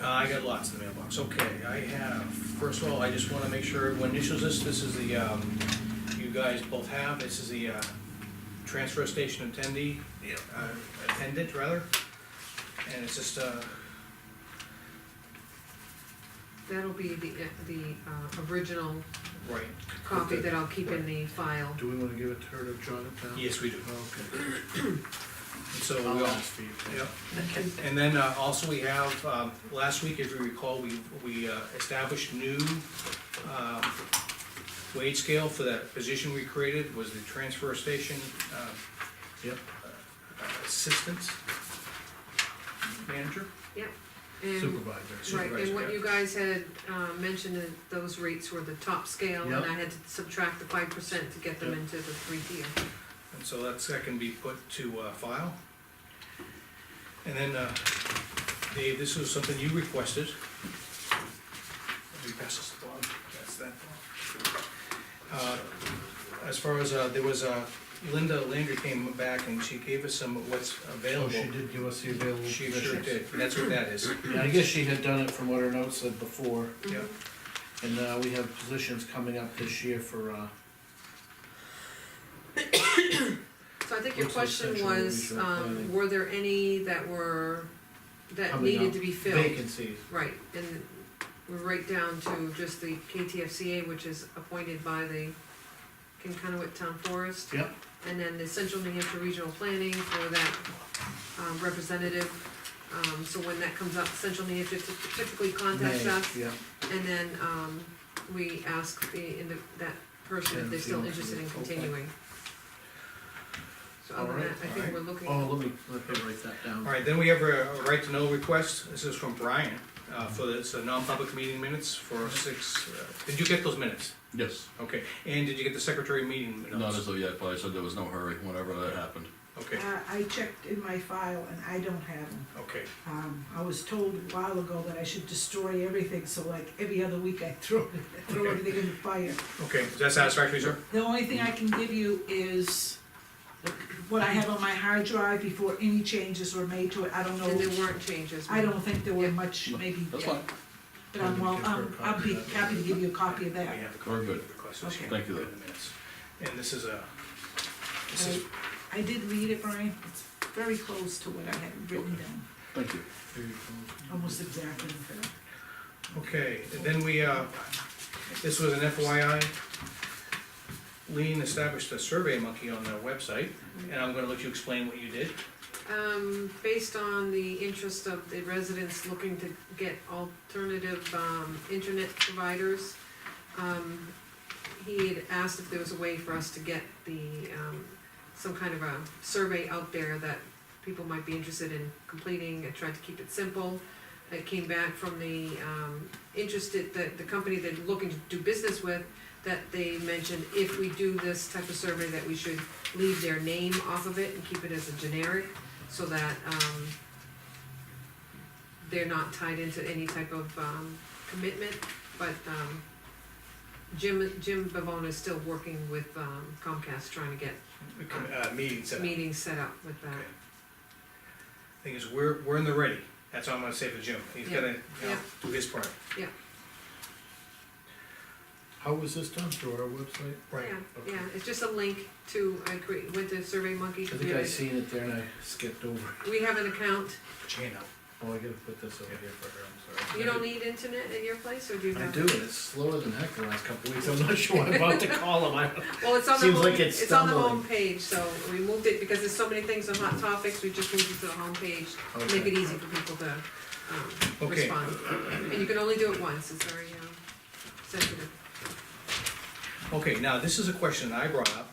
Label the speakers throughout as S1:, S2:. S1: Uh, I got lots in the mailbox, okay, I have, first of all, I just wanna make sure everyone initials this, this is the, um, you guys both have, this is the, uh, transfer station attendee,
S2: Yeah.
S1: uh, attendant rather, and it's just, uh,
S3: That'll be the, the, uh, original
S1: right,
S3: copy that I'll keep in the file.
S2: Do we wanna give it to her to jot it down?
S1: yes, we do,
S2: Okay.
S1: and so we
S2: I'll
S1: all,
S2: ask for you.
S1: Yep. And then uh, also we have, um, last week, if you recall, we, we uh, established new um, wage scale for that position we created, was the transfer station uh,
S2: Yep,
S1: assistance manager.
S3: Yep. And,
S2: supervisor.
S3: right, and
S1: supervisor,
S3: what you guys had, uh, mentioned that those rates were the top scale, and
S2: Yep.
S3: I had to subtract the five percent to get them
S2: Yep.
S3: into the three tier.
S1: And so that's, that can be put to uh, file. And then, uh, Dave, this was something you requested. Let me pass this along, that's that. Uh, As far as, uh, there was, uh, Linda Landry came back and she gave us some of what's
S2: Oh,
S1: available.
S2: she did give us the available
S1: Oh, She sure
S2: positions.
S1: did, that's what that is,
S2: Yeah, I guess she had done it from what her notes said before,
S1: yeah.
S2: and, uh, we have positions coming up this year for, uh,
S3: So I think your
S2: Looks like
S3: question
S2: central
S3: was,
S2: regional
S3: um,
S2: planning.
S3: were there any that were, that
S2: Coming
S3: needed
S2: up.
S3: to be filled?
S2: vacancies.
S3: Right, and we're right down to just the KTFCA, which is appointed by the Kinconnewick Town Forest.
S2: Yep.
S3: And then the Central New Hampshire Regional Planning for that um, representative. Um, So when that comes up, Central New Hampshire typically contacts
S2: May,
S3: us,
S2: Yeah,
S3: and then um, we ask the, in the- that person if they're still interested in continuing. So other than that, I think we're looking.
S2: oh, let me, let me write that down.
S1: All right, then we have a a right to know request, this is from Brian, uh, for the, it's a non-public meeting minutes for six, uh, did you get those minutes?
S4: Yes,
S1: Okay, and did you get the secretary meeting minutes?
S4: not as though yet, but I said there was no hurry whenever that happened.
S1: Okay,
S5: Uh, I checked in my file and I don't have them.
S1: okay,
S5: Um, I was told a while ago that I should destroy everything, so like every other week I throw, throw
S1: Okay.
S5: everything in the fire.
S1: okay, is that satisfactory, sir?
S5: The only thing I can give you is what I have on my hard drive before any changes were made to it. I don't
S2: Oh,
S3: And there
S5: know,
S3: weren't changes.
S5: I don't think there were much,
S4: No,
S5: maybe,
S4: That's
S5: yeah,
S4: fine,
S5: but I'm, well,
S2: Give her a
S5: um,
S2: copy
S5: I'd be
S2: of that.
S5: happy to give you a copy of
S1: We
S5: that.
S1: have the
S4: We're good.
S1: request, so she
S5: Okay.
S1: can
S4: Thank you,
S1: put it
S4: though.
S1: in the minutes. And this is a, this is,
S5: I did read it, Brian, it's very close to what I had written down,
S4: thank you.
S2: Here you go.
S5: almost exactly. in fact.
S1: okay, and then we, uh, this was an FYI. Lean established a survey monkey on their website, and I'm gonna let you explain what you did.
S3: Um, based on the interest of the residents looking to get alternative, um, internet providers, um, he had asked if there was a way for us to get the, um, some kind of a survey out there that people might be interested in completing, I tried to keep it simple. It came back from the, um, interested, the, the company they're looking to do business with, that they mentioned if we do this type of survey, that we should leave their name off of it and keep it as a generic, so that, um, they're not tied into any type of, um, commitment, but, um, Jim, Jim Bavona is still working with um, Comcast, trying to get
S1: Uh, meeting set up.
S3: meetings set up with that.
S1: Okay. Thing is, we're, we're in the ready, that's all I'm gonna say for Jim, he's
S3: Yeah.
S1: gonna, you know,
S3: Yeah.
S1: do his part.
S2: How was this done, through our website?
S3: Yeah, yeah, it's just a link to, I create, went to SurveyMonkey.
S2: I
S3: Monkey.
S2: think I seen it there and I skipped over.
S3: We have an account,
S1: Put your hand up.
S2: Oh, I gotta put this over here for her, I'm sorry.
S3: you don't need internet at your place, or do you
S2: I
S3: have?
S2: do, and it's slower than heck the last couple of weeks, I'm not sure, I'm about to call him, I,
S3: Well, it's on the
S2: Seems
S3: home,
S2: like it's
S3: it's on the
S2: stumbling.
S3: home page, so we moved it, because there's so many things on hot topics, we just moved it to the home page.
S2: okay.
S3: Make it easy for people to, um,
S1: Okay.
S3: respond, and you can only do it once, it's very, um, sensitive.
S1: Okay, now, this is a question I brought up.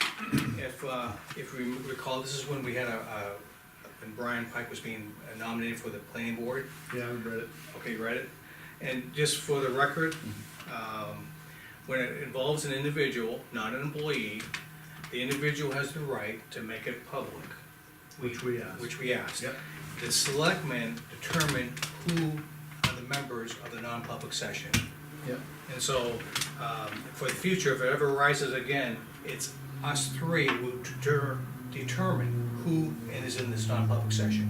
S1: If, uh, if we recall, this is when we had a, uh, when Brian Pike was being nominated for the planning board.
S2: Yeah, I read it.
S1: Okay, you read it? And just for the record,
S3: Mm-hmm.
S1: um, when it involves an individual, not an employee, the individual has the right to make it public,
S2: Which we asked.
S1: which we asked.
S2: Yep.
S1: The selectmen determine who are the members of the non-public session.
S2: Yep,
S1: And so, um, for the future, if it ever rises again, it's us three who deter- determine who is in this non-public session.